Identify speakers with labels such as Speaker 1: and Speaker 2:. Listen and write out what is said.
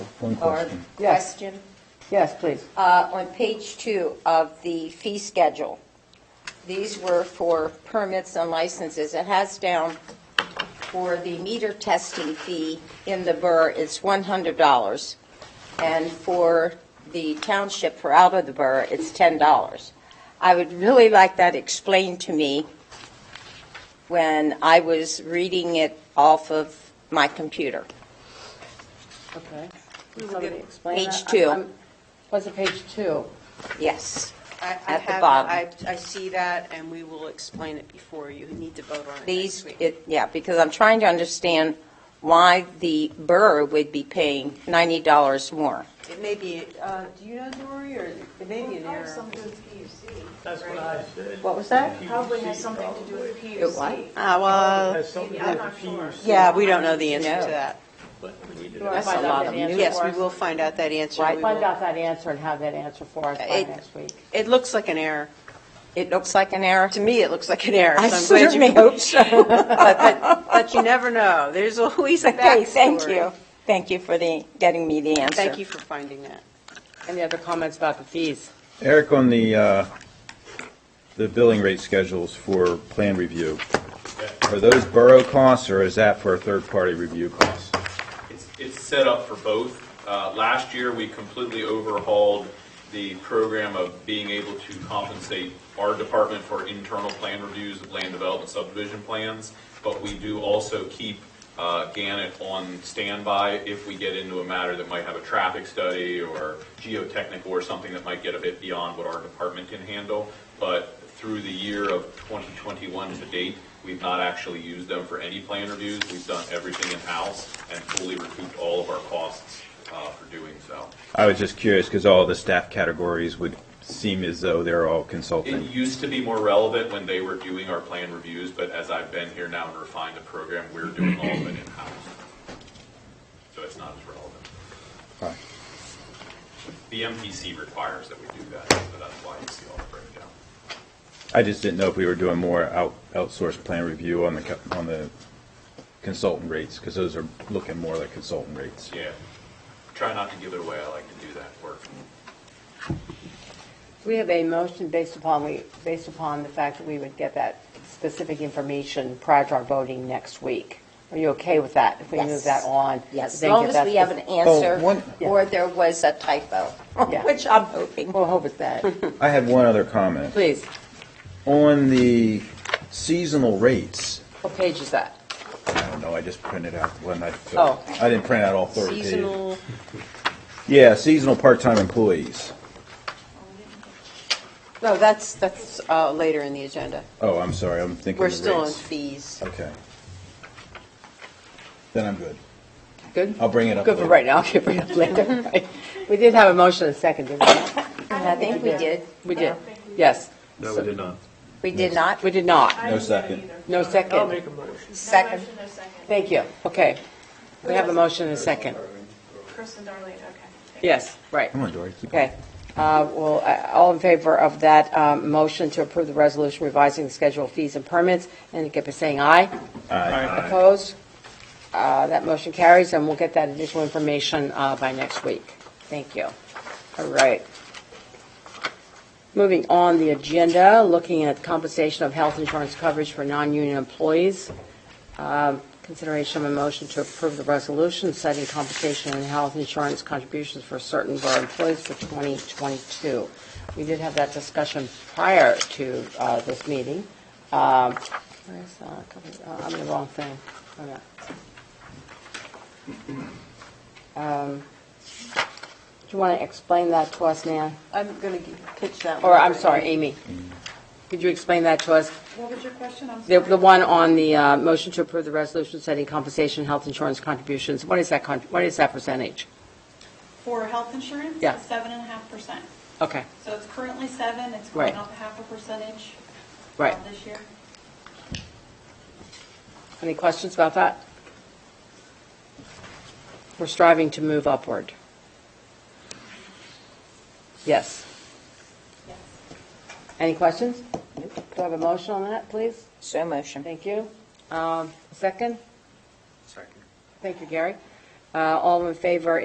Speaker 1: One
Speaker 2: or
Speaker 1: question.
Speaker 3: Yes.
Speaker 2: question?
Speaker 3: Yes, please.
Speaker 2: Uh, On page two of the fee schedule, these were for permits and licenses. It has down for the meter testing fee in the borough, it's $100. And for the township for out of the borough, it's $10. I would really like that explained to me when I was reading it off of my computer.
Speaker 3: Okay.
Speaker 2: Somebody explain that? Page two. I'm-
Speaker 3: Was it page two?
Speaker 2: Yes.
Speaker 4: I- I
Speaker 2: At the
Speaker 4: have it.
Speaker 2: bottom.
Speaker 4: I, I see that, and we will explain it before you need to vote on it next
Speaker 2: These,
Speaker 4: week.
Speaker 2: it, yeah, because I'm trying to understand why the borough would be paying $90 more.
Speaker 4: It may be, uh, do you know, Dory, or it may be an
Speaker 5: Probably
Speaker 4: error?
Speaker 5: something to do with PUC.
Speaker 6: That's what
Speaker 5: right?
Speaker 6: I said.
Speaker 3: What was that?
Speaker 5: Probably has something to do with
Speaker 2: It what?
Speaker 5: PUC.
Speaker 4: Ah, well,
Speaker 6: Has something
Speaker 5: Maybe,
Speaker 6: to do
Speaker 5: I'm
Speaker 6: with
Speaker 5: not
Speaker 6: the
Speaker 5: sure.
Speaker 6: PUC,
Speaker 4: yeah, we don't know the
Speaker 2: No.
Speaker 4: answer to that.
Speaker 6: but we need to.
Speaker 3: Right.
Speaker 2: That's a
Speaker 3: Find out
Speaker 2: lot
Speaker 3: the
Speaker 2: of
Speaker 3: answer.
Speaker 2: music.
Speaker 4: Yes, we will find out that answer.
Speaker 2: Right.
Speaker 4: We
Speaker 3: Find
Speaker 4: will-
Speaker 3: out that answer and have that answer for us by
Speaker 4: It-
Speaker 3: next week.
Speaker 4: It looks like an error.
Speaker 2: It looks like an error.
Speaker 4: To me, it looks like an error.
Speaker 2: I
Speaker 4: so I'm glad you-
Speaker 2: certainly hope so.
Speaker 4: But, but- but you never know. There's always a
Speaker 2: Okay,
Speaker 4: backstory.
Speaker 2: thank you. Thank you for the, getting me the answer.
Speaker 4: Thank you for finding that.
Speaker 3: Any other comments about the fees?
Speaker 1: Eric, on the, uh, the billing rate schedules for plan review, are those borough costs or is that for a third-party review cost?
Speaker 7: It's, it's set up for both. Uh, Last year, we completely overhauled the program of being able to compensate our department for internal plan reviews of land development subdivision plans, but we do also keep uh, Gannett on standby if we get into a matter that might have a traffic study or geotechnical or something that might get a bit beyond what our department can handle. But through the year of 2021 to date, we've not actually used them for any plan reviews. We've done everything in-house and fully recouped all of our costs uh, for doing so.
Speaker 1: I was just curious because all the staff categories would seem as though they're all
Speaker 7: It
Speaker 1: consulting.
Speaker 7: used to be more relevant when they were doing our plan reviews, but as I've been here now and refined the program, we're doing all of it in-house. So it's not as relevant.
Speaker 1: Fine.
Speaker 7: The MPC requires that we do that, so that's why you see all the breakdown.
Speaker 1: I just didn't know if we were doing more out outsourced plan review on the, co- on the consultant rates because those are looking more like consultant rates.
Speaker 7: Yeah. Try not to give it away. I like to do that work.
Speaker 3: We have a motion based upon, we, based upon the fact that we would get that specific information prior to our voting next week. Are you okay with that? If we move
Speaker 2: Yes.
Speaker 3: that on?
Speaker 2: Yes, as
Speaker 3: then
Speaker 2: long
Speaker 3: get
Speaker 2: as
Speaker 3: that
Speaker 2: we have an
Speaker 3: spec-
Speaker 2: answer,
Speaker 1: one-
Speaker 2: or there was a typo,
Speaker 3: Yeah.
Speaker 2: which I'm hoping.
Speaker 3: We'll hope it's that.
Speaker 1: I have one other comment.
Speaker 3: Please,
Speaker 1: On the seasonal rates,
Speaker 3: what page is that?
Speaker 1: I don't know, I just printed out the one I,
Speaker 3: Oh.
Speaker 1: I didn't print out all 30 pages.
Speaker 4: Seasonal,
Speaker 1: Yeah, seasonal part-time employees.
Speaker 4: no, that's, that's uh, later in the agenda.
Speaker 1: Oh, I'm sorry, I'm thinking
Speaker 4: We're
Speaker 1: the
Speaker 4: still on
Speaker 1: rates.
Speaker 4: fees.
Speaker 1: Okay. Then I'm good.
Speaker 3: Good?
Speaker 1: I'll bring it up
Speaker 3: Good for
Speaker 1: later.
Speaker 3: right now, I'll bring it up later. Right. We did have a motion and a second, didn't we?
Speaker 2: And I think we did.
Speaker 3: We did, yes.
Speaker 6: No, we did not.
Speaker 2: We did not.
Speaker 3: We did not,
Speaker 1: No second.
Speaker 3: no
Speaker 6: I'll
Speaker 3: second.
Speaker 6: make a motion.
Speaker 2: Second.
Speaker 5: No motion, no second.
Speaker 3: Thank you, okay. We have a motion and a second.
Speaker 5: Kristen Darling, okay.
Speaker 3: Yes, right.
Speaker 1: Come on, Dory. keep going.
Speaker 3: Okay. Uh, Well, uh, all in favor of that um, motion to approve the resolution revising the schedule of fees and permits, indicate by saying aye.
Speaker 1: Aye.
Speaker 3: Opposed? Uh, That motion carries, and we'll get that additional information uh, by next week. Thank you. All right. Moving on the agenda, looking at compensation of health insurance coverage for non-union employees. Um, Consideration of a motion to approve the resolution setting compensation and health insurance contributions for certain of our employees for 2022. We did have that discussion prior to uh, this meeting. Um, where is that? Cover- uh, I'm in the wrong thing. Hold on. Um, Do you want to explain that to us, Nan?
Speaker 4: I'm going to pitch that one.
Speaker 3: Or, I'm
Speaker 4: for
Speaker 3: sorry,
Speaker 4: Amy.
Speaker 3: Amy, could you explain that to us?
Speaker 5: What was your question? I'm
Speaker 3: The,
Speaker 5: sorry.
Speaker 3: the one on the uh, motion to approve the resolution setting compensation, health insurance contributions, what is that, con- what is that percentage?
Speaker 5: For health insurance?
Speaker 3: Yeah.
Speaker 5: it's Seven and a half percent.
Speaker 3: Okay,
Speaker 5: So it's currently seven, it's going
Speaker 3: Right.
Speaker 5: up half a percentage. uh,
Speaker 3: right.
Speaker 5: This year.
Speaker 3: Any questions about that? We're striving to move upward. Yes.
Speaker 5: Yes.
Speaker 3: Any questions? Do I have a motion on that, please?
Speaker 2: So motion.
Speaker 3: Thank you. Um, Second? Second. Thank you, Gary. Uh, All in favor